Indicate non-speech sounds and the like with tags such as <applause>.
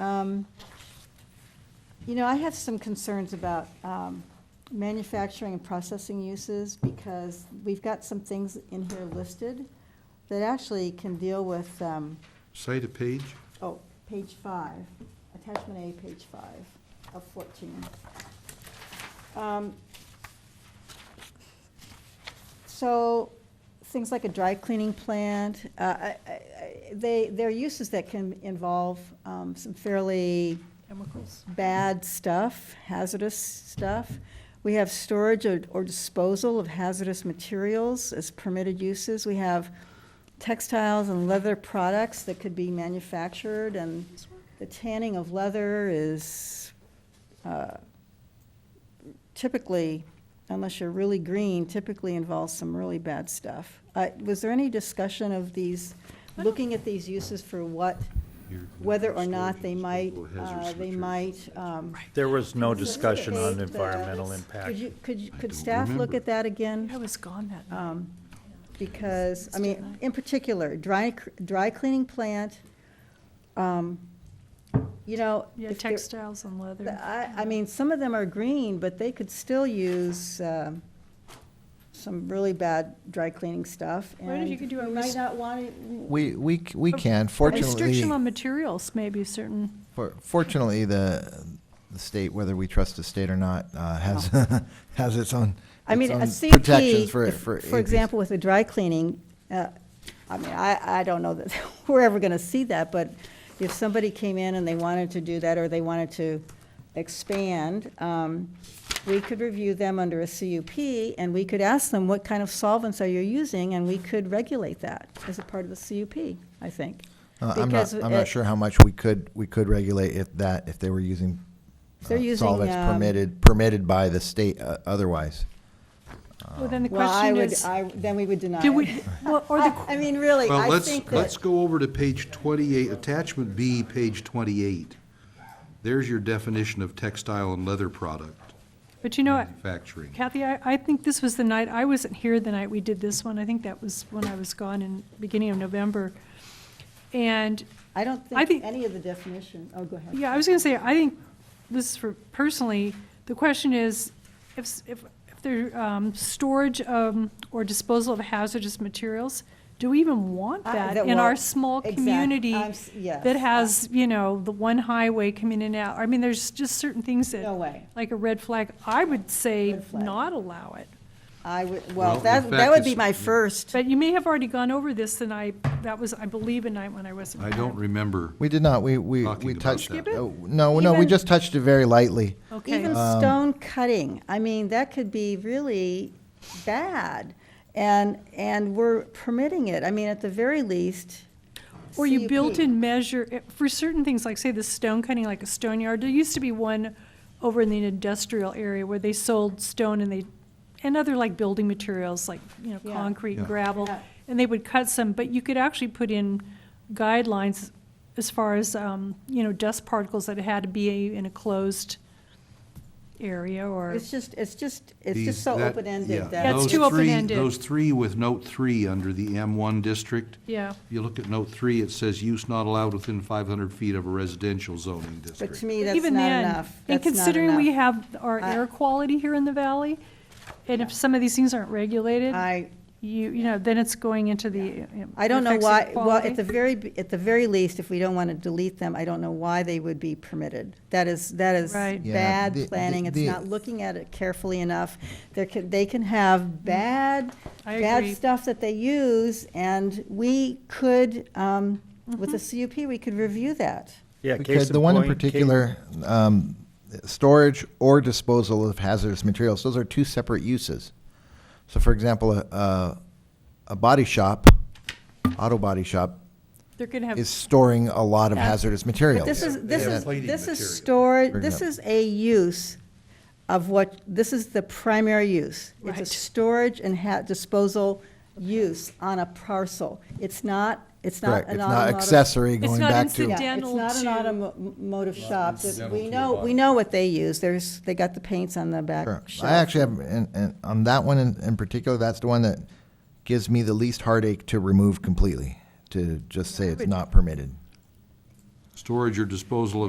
Um, You know, I have some concerns about um, manufacturing and processing uses because we've got some things in here listed that actually can deal with, um, Say to page, oh, page five, attachment A, page five of fourteen. Um, So, things like a dry cleaning plant, uh, I- I- I- they, they're uses that can involve um, some fairly Chemicals. bad stuff, hazardous stuff. We have storage or or disposal of hazardous materials as permitted uses. We have textiles and leather products that could be manufactured, and the tanning of leather is uh, typically, unless you're really green, typically involves some really bad stuff. Uh, Was there any discussion of these, I don't- looking at these uses for what, whether or not they might, uh, Hazardous they materials. might. um, There was no discussion on facilitate the- environmental Could impact. you, could, you- I could don't staff look remember. at that again? I was gone that night. uh, Um, Because, I mean, in particular, dry, c- dry cleaning plant, um, you know. Yeah, if they're- textiles and leather. I, I mean, some of them are green, but they could still use um, some really bad dry cleaning stuff. Why don't and you could do a We might res- not want We, we, c- we A- can, Restriction fortunately, on materials, maybe certain, for- fortunately, the, the state, whether we trust the state or not, uh, has, <laughs> has its own, I mean, a its own CUP, protections for, if- for. for APs. example, with the dry cleaning, uh, I mean, I, I don't know that <laughs> we're ever going to see that, but if somebody came in and they wanted to do that, or they wanted to expand, um, we could review them under a CUP, and we could ask them, what kind of solvents are you using? And we could regulate that as a part of the CUP, I think. Uh, I'm not, because I'm it- not sure how much we could, we could regulate if that, if they were using If they're uh, using, solvents um, permitted, permitted by the state uh, otherwise. well, then the Well, I question would, is, I, then we would deny do we, it. well, <laughs> or I the, I mean, really, Well, I let's, think let's that, go over to page 28, attachment B, page 28. There's your definition of textile and leather product but you know, what, manufacturing. Kathy, I, I think this was the night, I wasn't here the night we did this one. I think that was when I was gone in beginning of November. And I don't I think think- any of the definition, oh, go ahead. Yeah, I was going to say, I think this is for personally, the question is, if, s- if, if there, um, storage, um, or disposal of hazardous materials, do we even want I- that that- in our well, small exact- community? I'm s- yes. That has, you know, the one highway coming in and out, I mean, there's just certain things that. No way. Like a red flag, I would say Red flag. not allow it. I would, Well, well, in that, that fact, would be it's- my first. But you may have already gone over this, and I, that was, I believe, a night when I wasn't. I here. don't remember. We did not, we, we, Talking we about touched. that. Skip it? oh, No, no, we Even- just touched it very lightly. Okay. Even Um, stone cutting, I mean, that could be really bad. And, and we're permitting it. I mean, at the very least. Or you built CUP. in measure, eh, for certain things, like say the stone cutting, like a stone yard, there used to be one over in the industrial area where they sold stone and they, and other like building materials, like, you know, Yeah. concrete and Yeah. gravel. Yeah. And they would cut some, but you could actually put in guidelines as far as, um, you know, dust particles that had to be in a closed area or, It's just, it's just, it's These- just so that- yeah, open-ended That's those that, too three- open-ended. Those three with note three under the M1 district. yeah. If you look at note three, it says use not allowed within 500 feet of a residential zoning but district. to me, that's not Even then, enough. And That's not considering we enough. have our I- air quality here in the valley, and if some of these things aren't regulated. I, you, you know, then it's going into the. you I don't know affects the why, well, quality. at the very, b- at the very least, if we don't want to delete them, I don't know why they would be permitted. That is, that is Right. Yeah, bad the- the- planning, it's the- not looking at it carefully enough. There can, they can have bad, I bad agree. stuff that they use, and we could, um, with Mm-hmm. the CUP, we could review that. Yeah, case Because the one in point, case- particular, um, storage or disposal of hazardous materials, those are two separate uses. So for example, a, a, a body shop, auto body shop, They're going to have. is storing a lot of Yeah. hazardous But materials. this is, this have is, plating this is material. storage, Bring it this up. is a use of what, this is the primary use. It's a Right. storage and ha- disposal use on a parcel. It's not, it's not Correct, an it's not automotive. accessory It's going not back to. incident- Yeah, it's Dental not an to- automotive shop. incidental to We the know, we body. know what they use. There's, they got the paints on the back Sure. shelf. I actually have, and, and on that one in, in particular, that's the one that gives me the least heartache to remove completely, to just say it's not permitted. storage or disposal of